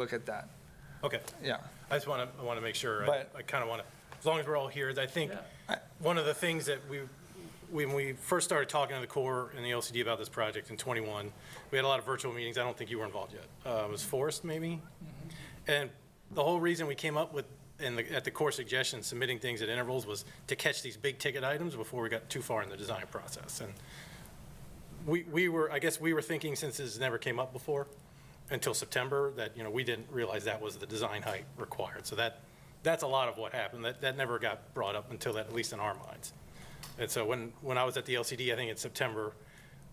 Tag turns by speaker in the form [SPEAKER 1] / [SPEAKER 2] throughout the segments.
[SPEAKER 1] look at that.
[SPEAKER 2] Okay,
[SPEAKER 1] Yeah.
[SPEAKER 2] I just want to, I want to make sure, I
[SPEAKER 1] But-
[SPEAKER 2] I kind of want to, as long as we're all here, I think, one of the things that we, when we first started talking to the Corps and the LCD about this project in '21, we had a lot of virtual meetings, I don't think you were involved yet. Uh, It was Forrest, maybe? And the whole reason we came up with, in the, at the core suggestion, submitting things at intervals was to catch these big ticket items before we got too far in the design process. And we, we were, I guess we were thinking since this never came up before until September, that, you know, we didn't realize that was the design height required. So that, that's a lot of what happened. That, that never got brought up until that, at least in our minds. And so when, when I was at the LCD, I think in September,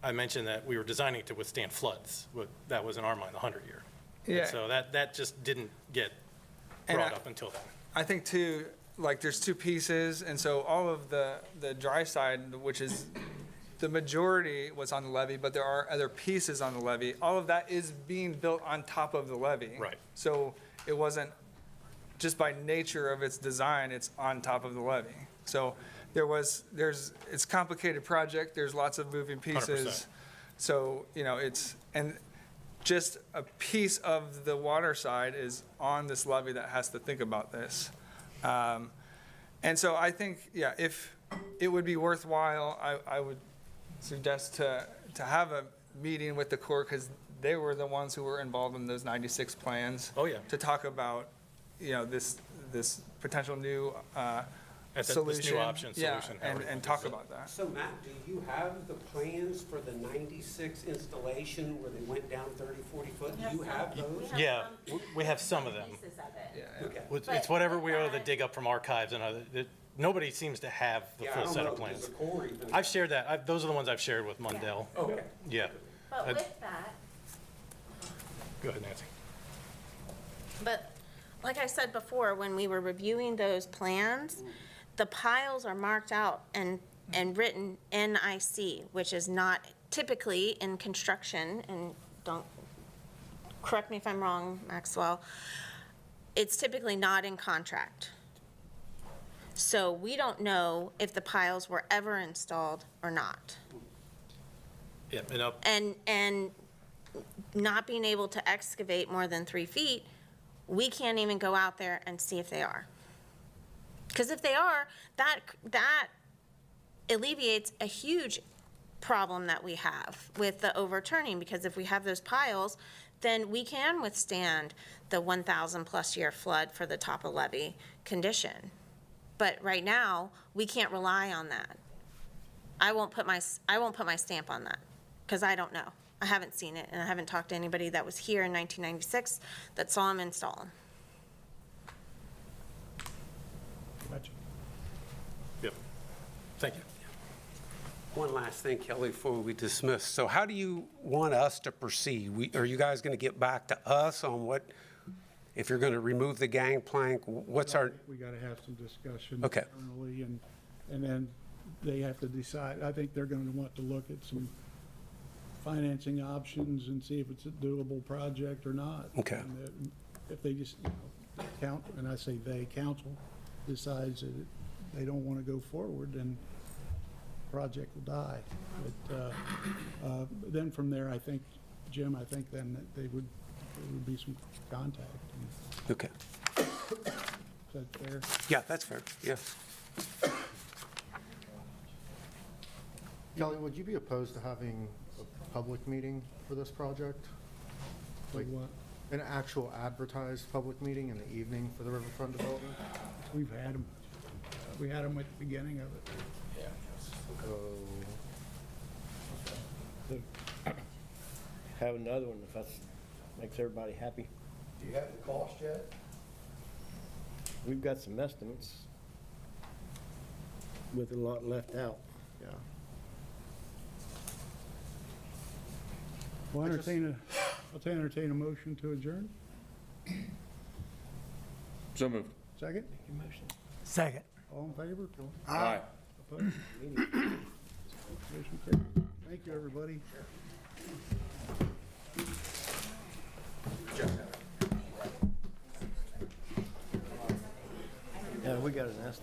[SPEAKER 2] I mentioned that we were designing to withstand floods. What- That was in our mind, the 100-year.
[SPEAKER 1] Yeah.
[SPEAKER 2] So that, that just didn't get
[SPEAKER 1] And
[SPEAKER 2] brought
[SPEAKER 1] I-
[SPEAKER 2] up until then.
[SPEAKER 1] I think too, like there's two pieces, and so all of the the dry side, which is the majority was on the levee, but there are other pieces on the levee. All of that is being built on top of the levee.
[SPEAKER 2] Right.
[SPEAKER 1] So it wasn't just by nature of its design, it's on top of the levee. So there was there's it's a complicated project. There's lots of moving pieces.
[SPEAKER 2] 100%.
[SPEAKER 1] So you know it's and just a piece of the water side is on this levy that has to think about this. Um, And so I think, yeah, if it would be worthwhile, I, I would suggest to, to have a meeting with the Corps because they were the ones who were involved in those 96 plans.
[SPEAKER 2] Oh, yeah.
[SPEAKER 1] To talk about, you know, this, this potential new uh,
[SPEAKER 2] At the- this new
[SPEAKER 1] solution.
[SPEAKER 2] option,
[SPEAKER 1] Yeah,
[SPEAKER 2] solution, however
[SPEAKER 1] and,
[SPEAKER 2] you
[SPEAKER 1] and
[SPEAKER 2] want to
[SPEAKER 1] talk
[SPEAKER 2] say it.
[SPEAKER 1] about that.
[SPEAKER 3] So Matt, do you have the plans for the 96 installation where they went down 30, 40 foot? Do you have those?
[SPEAKER 4] have
[SPEAKER 2] Yeah,
[SPEAKER 4] some-
[SPEAKER 2] w- we have some of them.
[SPEAKER 4] Pieces of it.
[SPEAKER 3] Okay.
[SPEAKER 2] It's-
[SPEAKER 4] But-
[SPEAKER 2] It's whatever we owe the
[SPEAKER 4] but-
[SPEAKER 2] dig up from archives and other, that- nobody seems to have the
[SPEAKER 3] Yeah, I
[SPEAKER 2] full
[SPEAKER 3] don't
[SPEAKER 2] set
[SPEAKER 3] know
[SPEAKER 2] of
[SPEAKER 3] if there's
[SPEAKER 2] plans.
[SPEAKER 3] a core even.
[SPEAKER 2] I've shared that, I've- those are the ones I've shared with Mundell.
[SPEAKER 3] Okay.
[SPEAKER 2] Yeah.
[SPEAKER 4] But
[SPEAKER 2] Uh,
[SPEAKER 4] with that,
[SPEAKER 2] Go ahead, Nancy.
[SPEAKER 4] but like I said before, when we were reviewing those plans, the piles are marked out and, and written NIC, which is not typically in construction, and don't, correct me if I'm wrong, Maxwell, it's typically not in contract. So we don't know if the piles were ever installed or not.
[SPEAKER 2] Yeah, and up,
[SPEAKER 4] and, and not being able to excavate more than three feet, we can't even go out there and see if they are. Because if they are, that, that alleviates a huge problem that we have with the overturning, because if we have those piles, then we can withstand the 1,000-plus year flood for the top of levee condition. But right now, we can't rely on that. I won't put my, I won't put my stamp on that, because I don't know. I haven't seen it, and I haven't talked to anybody that was here in 1996 that saw him install 'em.
[SPEAKER 2] yep, thank you.
[SPEAKER 3] One last thing, Kelly, before we dismiss. So how do you want us to proceed? We- Are you guys going to get back to us on what, if you're going to remove the gangplank, what's our,
[SPEAKER 5] We gotta have some discussion.
[SPEAKER 3] Okay.
[SPEAKER 5] Internally, and, and then they have to decide, I think they're gonna want to look at some financing options and see if it's a doable project or not.
[SPEAKER 3] Okay.
[SPEAKER 5] And that- If they just, you know, count, and I say they, council decides that it- they don't wanna go forward, then project will die. But, uh, uh, then from there, I think, Jim, I think then that they would, there would be some contact. Is
[SPEAKER 3] okay.
[SPEAKER 5] that fair?
[SPEAKER 3] Yeah, that's fair, yes.
[SPEAKER 6] Kelly, would you be opposed to having a public meeting for this project?
[SPEAKER 5] Like what?
[SPEAKER 6] An actual advertised public meeting in the evening for the riverfront development?
[SPEAKER 5] We've had them. We had them at the beginning of it.
[SPEAKER 7] have another one if that's, makes everybody happy.
[SPEAKER 6] Do you have the cost yet?
[SPEAKER 7] We've got some estimates with a lot left out.
[SPEAKER 6] Yeah.
[SPEAKER 5] I'll
[SPEAKER 6] I just-
[SPEAKER 5] entertain a, I'll entertain a motion to adjourn.
[SPEAKER 8] So moved.
[SPEAKER 5] Second?
[SPEAKER 1] Second.
[SPEAKER 5] All in favor?
[SPEAKER 8] Aye.
[SPEAKER 5] Opposed? Motion carried. Thank you, everybody.
[SPEAKER 7] Yeah, we got an estimate.